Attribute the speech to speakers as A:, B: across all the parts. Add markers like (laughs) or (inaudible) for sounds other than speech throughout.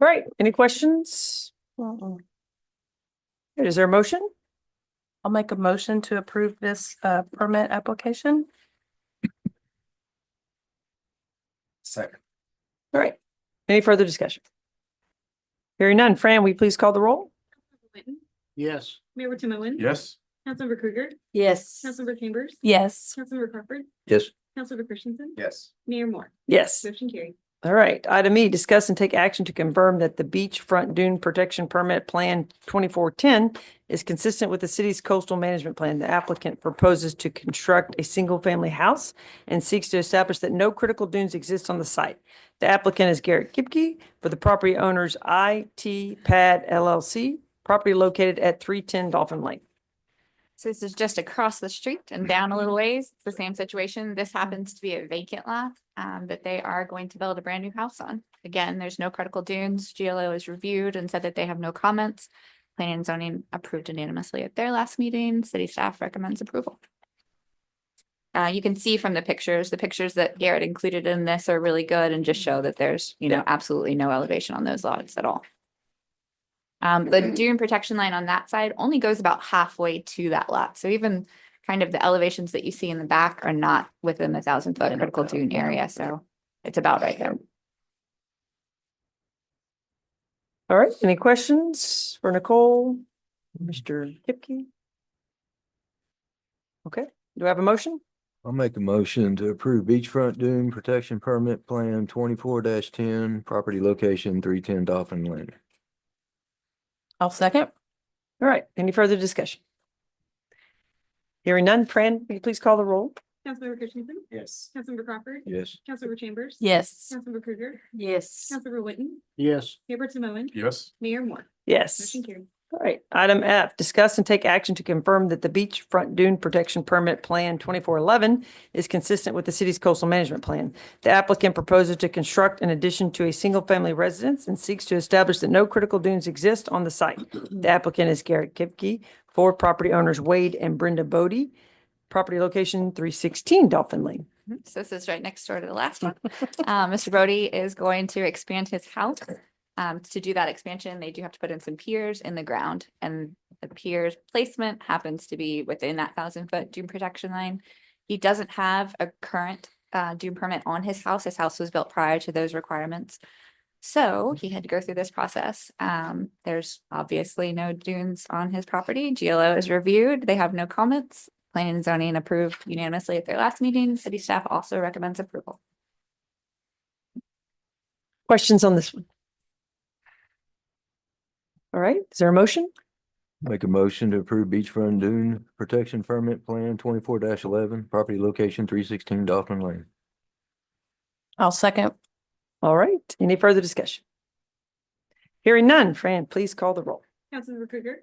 A: All right, any questions? Is there a motion?
B: I'll make a motion to approve this uh permit application.
C: Second.
A: All right, any further discussion? Hearing none. Fran, will you please call the roll?
D: Whitten,
C: Yes.
D: Mayor Tim Owen.
C: Yes.
D: Councilmember Krueger,
E: Yes.
D: Councilmember Chambers.
B: Yes.
D: Councilmember Crawford,
C: Yes.
D: Councilmember Christensen,
C: Yes.
D: Mayor Moore.
A: Yes.
D: Motion carried.
A: All right, item E, discuss and take action to confirm that the beachfront dune protection permit plan twenty-four ten is consistent with the city's coastal management plan. The applicant proposes to construct a single-family house and seeks to establish that no critical dunes exist on the site. The applicant is Garrett Kipke for the property owners IT Pad LLC, property located at three ten Dolphin Lake.
F: So this is just across the street and down a little ways. It's the same situation. This happens to be a vacant lot um, that they are going to build a brand new house on. Again, there's no critical dunes. GLO is reviewed and said that they have no comments. Planning and zoning approved unanimously at their last meeting. City staff recommends approval. Uh, you can see from the pictures, the pictures that Garrett included in this are really good and just show that there's, you know, absolutely no elevation on those lots at all. Um, the dune protection line on that side only goes about halfway to that lot, so even kind of the elevations that you see in the back are not within the thousand foot critical dune area, so it's about right there.
A: All right, any questions for Nicole, Mr. Kipke? Okay, do I have a motion?
G: I'll make a motion to approve beachfront dune protection permit plan twenty-four ten, property location three ten Dolphin Lane.
B: I'll second.
A: All right, any further discussion? Hearing none, Fran, will you please call the roll?
D: Councilmember Christensen,
C: Yes.
D: Councilmember Crawford,
G: Yes.
D: Councilmember Chambers.
B: Yes.
D: Councilmember Krueger,
E: Yes.
D: Councilmember Whitten,
C: Yes.
D: Mayor Tim Owen,
C: Yes.
D: Mayor Moore.
A: Yes.
D: Motion carried.
A: All right, item F, discuss and take action to confirm that the beachfront dune protection permit plan twenty-four eleven is consistent with the city's coastal management plan. The applicant proposes to construct an addition to a single-family residence and seeks to establish that no critical dunes exist on the site. The applicant is Garrett Kipke for property owners Wade and Brenda Bodie, property location three sixteen Dolphin Lane.
F: (laughs) Mhm. So this is right next door to the last one. Uh, Mr. Brody is going to expand his house. Um, to do that expansion, they do have to put in some piers in the ground and the piers placement happens to be within that thousand foot dune protection line. He doesn't have a current uh dune permit on his house. His house was built prior to those requirements. So he had to go through this process. Um, there's obviously no dunes on his property. GLO is reviewed. They have no comments. Planning and zoning approved unanimously at their last meeting. City staff also recommends approval.
A: Questions on this one? All right, is there a motion?
G: Make a motion to approve beachfront dune protection permit plan twenty-four eleven, property location three sixteen Dolphin Lane.
B: I'll second.
A: All right, any further discussion? Hearing none, Fran, please call the roll.
D: Councilmember Krueger,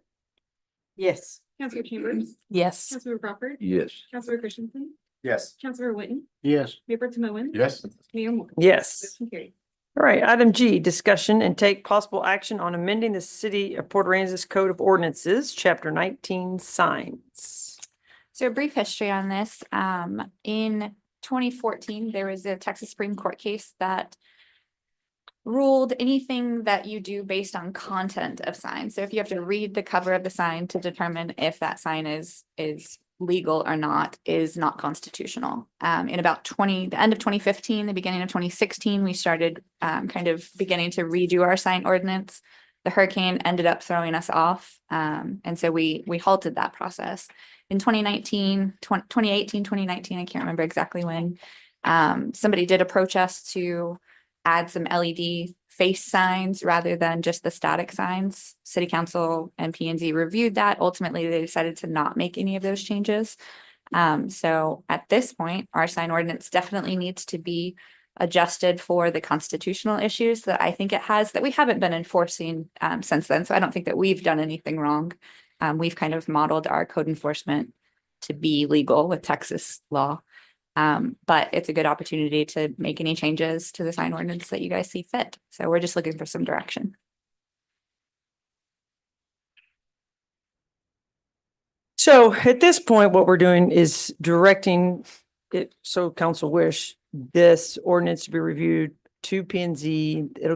E: Yes.
D: Councilmember Chambers,
B: Yes.
D: Councilmember Crawford,
G: Yes.
D: Councilmember Christensen,
C: Yes.
D: Councilmember Whitten,
C: Yes.
D: Mayor Tim Owen.
C: Yes.
D: Mayor Moore.
A: Yes.
D: Motion carried.
A: All right, item G, discussion and take possible action on amending the City of Port Aransas Code of Ordinances, Chapter nineteen, signs.
F: So a brief history on this, um, in twenty fourteen, there was a Texas Supreme Court case that ruled anything that you do based on content of signs. So if you have to read the cover of the sign to determine if that sign is, is legal or not, is not constitutional. Um, in about twenty, the end of twenty fifteen, the beginning of twenty sixteen, we started, um, kind of beginning to redo our sign ordinance. The hurricane ended up throwing us off, um, and so we, we halted that process in 2019, 20 2018, 2019, I can't remember exactly when. Um, somebody did approach us to add some LED face signs rather than just the static signs. City Council and P and Z reviewed that. Ultimately, they decided to not make any of those changes. Um, so at this point, our sign ordinance definitely needs to be adjusted for the constitutional issues that I think it has that we haven't been enforcing um, since then. So I don't think that we've done anything wrong um, we've kind of modeled our code enforcement to be legal with Texas law. Um, but it's a good opportunity to make any changes to the sign ordinance that you guys see fit. So we're just looking for some direction.
A: So at this point, what we're doing is directing it, so council wish, this ordinance to be reviewed to P and Z. It'll